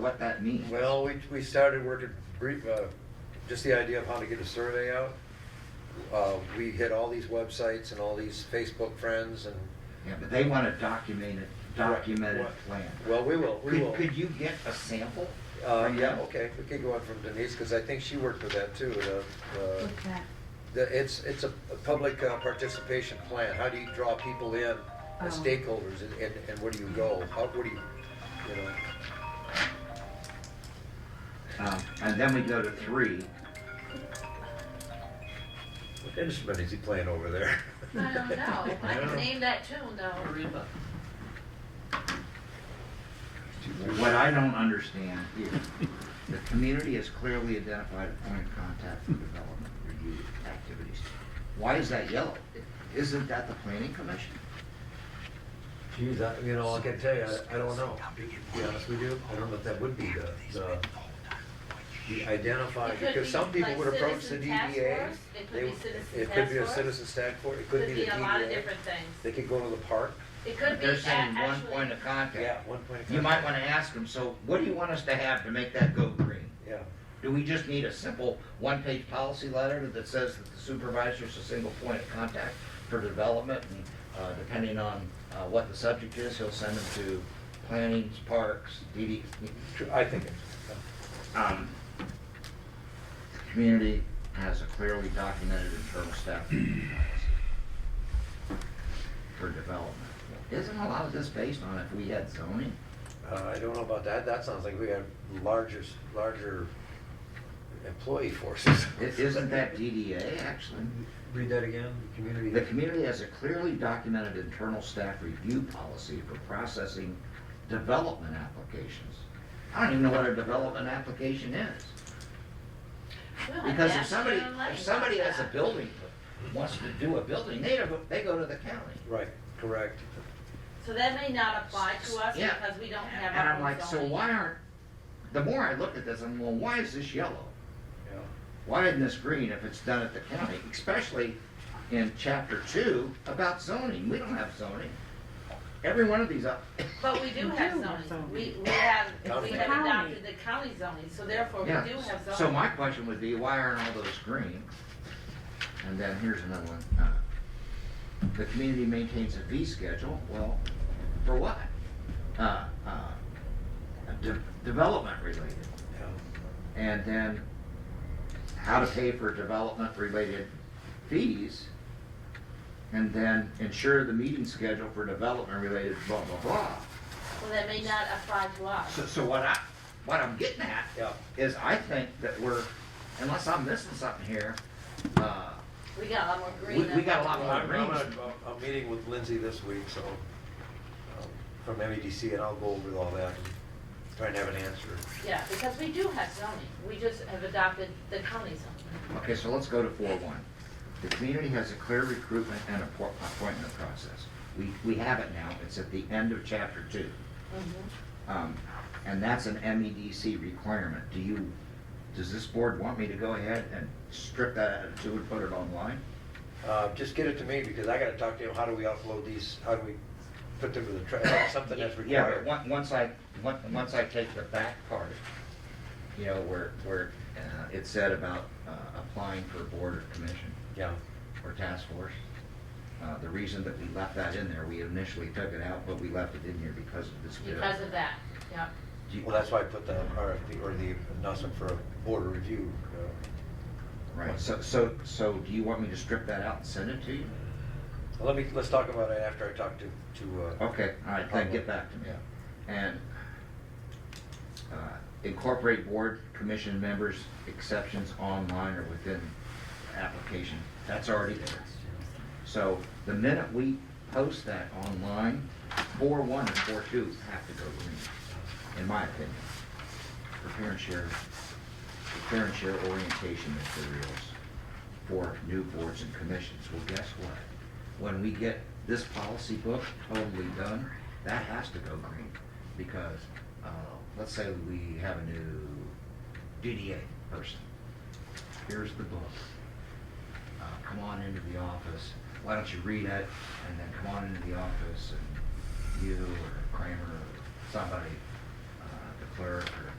what that means. Well, we, we started working, brief, uh, just the idea of how to get a survey out. Uh, we hit all these websites and all these Facebook friends and, Yeah, but they want a documented, documented What? plan. well, we will, we Could- will. Could you get a sample? Uh, from yeah, them? okay, we could go on from Denise, because I think she worked with that too, the, the, What's that? the, it's, it's a, a public uh, participation plan, how do you draw people in, Oh. as stakeholders, and, and, and where do you go, how, what do you, you know? Um, And then we go to three. What instrument is he playing over there? I don't know. I Yeah. can name that tune though. Aruba. What I don't understand is, the community has clearly identified a point of contact for development review activities. Why is that yellow? Isn't that the planning commission? Geez, I, you know, I can tell you, I, I don't know, to be honest with you, I don't know if that would be the, the, the identify, It could because be some people like would approach the citizen task DDA. force. It could they be would- citizen It could be a task force. citizen task force, it could Could be the be a lot of DDA. different They could things. go to the park, It could But be a- They're saying one actually- point of yeah, contact. one point. of You might contact. want to ask them, so what do you want us to have to make that go green? Yeah, Do we just need a simple one-page policy letter that says that the supervisor is a single point of contact for development? And uh, depending on uh, what the subject is, he'll send them to planning, parks, DD, Tr- I think, it- um, the community has a clearly documented internal staff review policy for development. Isn't a lot of this based on if we had zoning? uh, I don't know about that, that sounds like we have larger, larger employee forces. I- Isn't that DDA actually? Read that again, community. The community has a clearly documented internal staff review policy for processing development applications. I don't even know what a development application is. Well, Because if Oh, that's somebody, your life. if somebody has a building, that wants to do a building, they, don't- they go to the county. Right, correct. So that may not apply to us Yeah. because we don't have And our I'm own like, so zoning. why aren't, the more I look at this, I'm going, why is this yellow? Yeah. Why isn't this green if it's done at the county? Especially in chapter two about zoning. We don't have zoning. Every one of these up, But we do have We do have zoning. zoning. We, we have, we County. have adopted the county zoning, so therefore Oh, we do Yeah, have zoning. so my question would be, why aren't all those green? And then here's another one. uh, The community maintains a fee schedule, well, for what? Uh, uh, de- Development related. Yeah. And then how to pay for development related fees. And then ensure the meeting schedule for development related blah, blah, blah. Well, that may not apply to us. So, so what I, what I'm getting at Yeah. is I think that we're, unless I'm missing something here, uh, We got a lot more green. We- we than- got a lot more. I'm, I'm, at a- a meeting with Lindsay this week, so, um, from MEDC, and I'll go over all that and try and have an answer. Yeah, because we do have zoning. We just have adopted the county zoning. okay, so let's go to four one. The community has a clear recruitment and appo- appointment process. We, we have it now, it's at the end of chapter two. Mm-hmm. Um, And that's an MEDC requirement. Do you, does this board want me to go ahead and strip that out of two and put it online? Uh, just get it to me, because I gotta talk to him, how do we upload these, how do we put them to the, tra- something that's Yeah, but required? on- once I, on- once I take the back part, you know, where, where uh, it said about uh, applying for board or commission Yeah, or task force, uh, the reason that we left that in there, we initially took it out, but we left it in here because of this. Because of that, yeah. Do you- well, that's why I put the RFP, or the announcement for a board review. uh, Right, so, so, so do you want me to strip that out and send it to you? Let me, let's talk about it after I talk to, to, uh, Okay, all right, then get back to me. yeah. And uh, incorporate board commission members exceptions online or within application. That's already there. So the minute we post that online, four one and four two have to go green, in my opinion. Prepare and share, prepare and share orientation materials for new boards and commissions. Well, guess what? When we get this policy book totally done, that has to go green. Because, uh, let's say we have a new DDA person. Here's the book uh, come on into the office, why don't you read it, and then come on into the office, and you or Kramer or somebody, uh, the clerk or